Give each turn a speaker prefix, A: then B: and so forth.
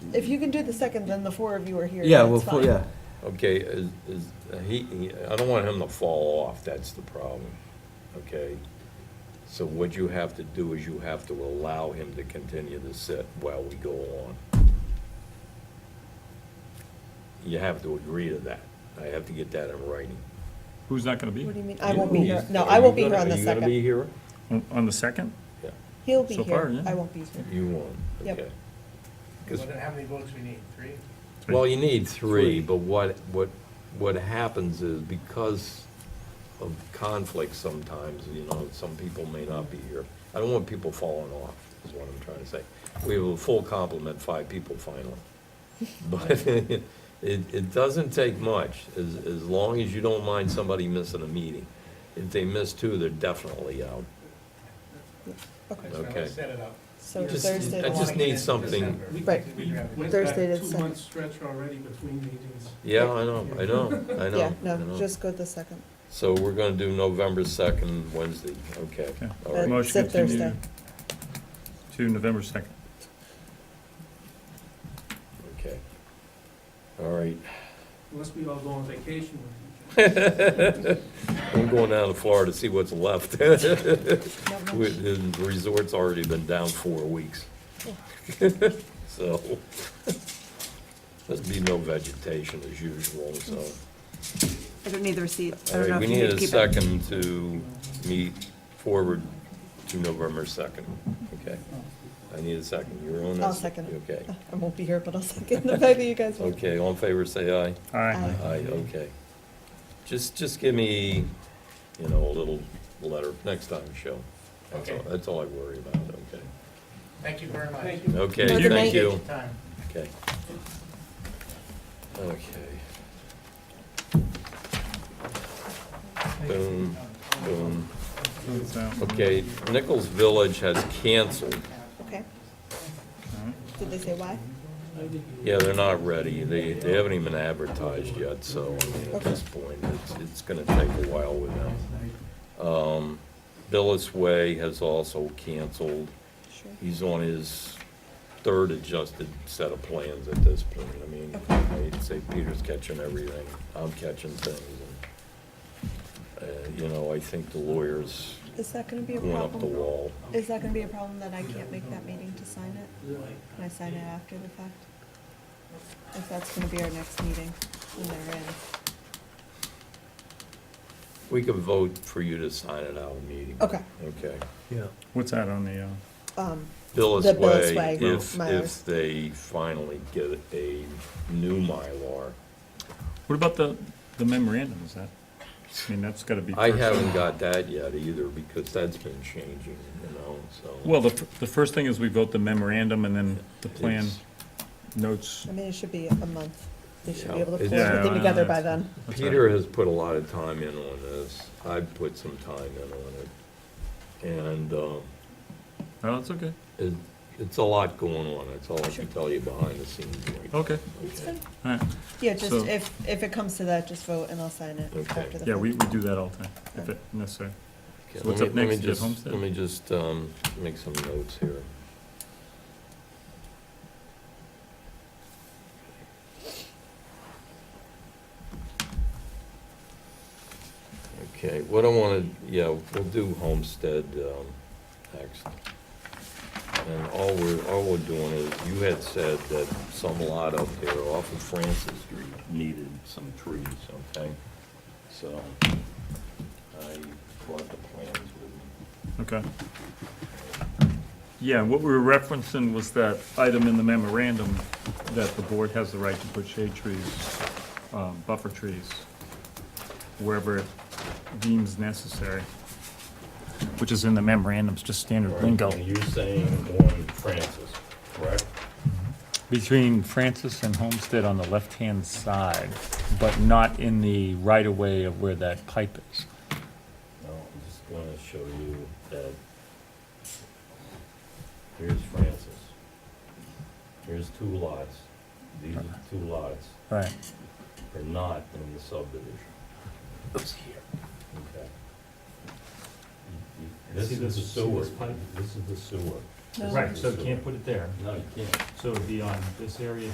A: If you can do the second, then the four of you are here.
B: Yeah,
A: that's
B: well, for-
A: fine.
B: yeah.
C: Okay, is, is, he, he- I don't want him to fall off, that's the problem, okay? So what you have to do is you have to allow him to continue to sit while we go on. You have to agree to that. I have to get that in writing.
D: Who's not gonna be?
A: What do you mean? I won't be here.
C: He's-
A: No,
C: are
A: I
C: you
A: won't be here
C: gonna-
A: on the
C: Are you
A: second.
C: gonna be
D: On- On the second?
C: here?
A: He'll be
D: So far,
A: here.
D: yeah.
A: I won't be here.
C: Yeah, you won't,
A: Yep.
C: okay. 'Cause-
E: Well, then how many votes we need, three?
C: Well, you need three,
D: Three.
C: but what, what, what happens is because of conflict sometimes, you know, some people may not be here. I don't want people falling off, is what I'm trying to say. We have a full complement, five people finally. But it, it doesn't take much, as, as long as you don't mind somebody missing a meeting. If they miss two, they're definitely out.
A: Okay,
E: That's when
C: Okay.
E: I set it up.
A: so
C: Just-
A: Thursday. the
C: I just
A: ninth.
C: need something-
E: December.
F: We-
A: Right.
F: We went
A: Thursday
F: that
A: to the
F: two-month stretch already between meetings.
C: Yeah, I know, I know, I know.
A: Yeah,
C: I
A: no,
C: know.
A: just go the second.
C: So we're gonna do November second, Wednesday, okay.
D: Okay.
C: all right.
A: Uh,
D: Motion
A: said
D: continue
A: Thursday.
D: To November second.
C: Okay. All right.
F: Unless we all go on vacation with each other.
C: I'm going down to Florida to see what's left. We-
A: Not much.
C: The resort's already been down four weeks. So, there'll be no vegetation as usual, so.
G: I don't need the receipt. Mm. I
C: All
G: don't know
C: right,
G: if
C: we
G: you
C: need
G: need to
C: a
G: keep it.
C: second to meet forward to November second, okay?
G: Oh.
C: I need a second. You're on this?
A: I'll second it.
C: Okay.
A: I won't be here, but I'll second. Maybe you guys will.
C: Okay, all in favor, say aye.
D: Aye.
A: Aye.
C: Aye, okay. Just, just give me, you know, a little letter next time, show. That's all,
E: Okay.
C: that's all I worry about, okay?
E: Thank you very much.
F: Thank you.
A: Have a
C: Okay,
A: good night.
C: thank you.
E: Time.
C: Okay. Okay. Boom, boom.
D: Votes out.
C: Okay, Nichols Village has canceled.
A: Okay.
D: All right.
A: Did they say why?
C: Yeah, they're not ready. They, they haven't even advertised yet, so I mean, at
A: Okay.
C: this point, it's, it's gonna take a while with them. Um, Billis Way has also canceled.
A: Sure.
C: He's on his third adjusted set of plans at this point. I mean, I'd say Peter's catching everything. I'm catching things. and, Uh, you know, I think the lawyers
A: Is that gonna be a
C: went up the
A: problem?
C: wall.
A: Is that gonna be a problem that I can't make that meeting to sign it? Can I sign it after the fact? If that's gonna be our next meeting, when they're in.
C: We could vote for you to sign it out of meeting.
A: Okay,
C: Okay.
D: What's that on the, uh,
A: um, The
C: Billis
A: Billis
C: Way,
A: Way
C: if,
A: Mylars.
C: if they finally get a new Mylar.
D: what about the, the memorandum, is that? I mean, that's gotta be.
C: I
D: first.
C: haven't got that yet either, because that's been changing, you know, so.
D: Well, the, f- the first thing is we vote the memorandum and then the plan
C: It's-
D: notes.
A: I mean, it should be a month. They should be
C: Yeah.
A: able to pull
C: Yeah,
A: everything
D: I
A: together
D: know.
A: by then.
D: That's right.
C: Peter has put a lot of time in on this. I've put some time in on it. And um,
D: Oh, that's okay,
C: it- it's a lot going on. That's all I can tell you behind the scenes. right now.
D: okay,
C: Okay.
D: all right.
A: Yeah, just
D: So-
A: if, if it comes to that, just vote and I'll sign it
C: Okay.
A: after the
D: Yeah, we,
A: fact.
D: we do that all the time, if it necessary. So what's
C: Let me- let
D: up
C: me
D: next, Jeff
C: just-
D: Homestead?
C: Let me just um, make some notes here. Okay, what I wanna, yeah, we'll do Homestead um, next. And all we're, all we're doing is, you had said that some lot up there off of Francis Street needed some trees, okay? So I brought the plans with me.
D: Okay. Yeah, what we were referencing was that item in the memorandum that the board has the right to put shade trees, um, buffer trees, wherever it deems necessary, which is in the memorandum, it's just standard lingo.
C: Now, You're saying on Francis, correct?
D: Between Francis and Homestead on the left-hand side, but not in the right-of-way of where that pipe is.
C: No, I'm just gonna show you that. Here's Francis. Here's two lots. These are the two lots.
D: Right.
C: are not in the subdivision. It's here. Okay. You- you- This is the sewer, this is the sewer.
H: No.
C: Right, so you can't put it there. No, you can't. So it'd be on this area